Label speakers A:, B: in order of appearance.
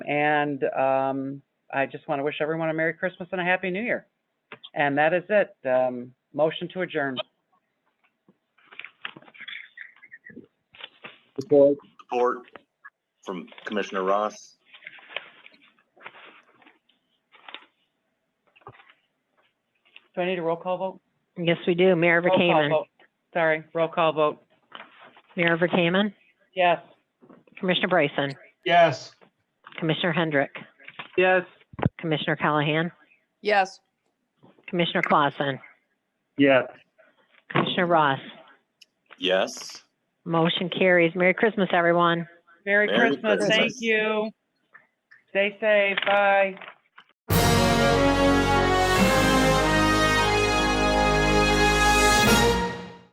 A: And um, I just want to wish everyone a Merry Christmas and a Happy New Year. And that is it. Um, motion to adjourn.
B: Support.
C: Support from Commissioner Ross.
A: Do I need a roll call vote?
D: Yes, we do. Mayor
A: Roll call
D: Verkaman.
A: vote. Sorry, roll call vote.
D: Mayor Verkaman.
A: Yes.
D: Commissioner Bryson.
B: Yes.
D: Commissioner Hendrick.
A: Yes.
D: Commissioner Callahan.
E: Yes.
D: Commissioner Clausen.
B: Yes.
D: Commissioner Ross.
C: Yes.
D: Motion carries. Merry Christmas, everyone.
A: Merry
C: Merry
A: Christmas. Thank
C: Christmas.
A: you. Stay safe. Bye.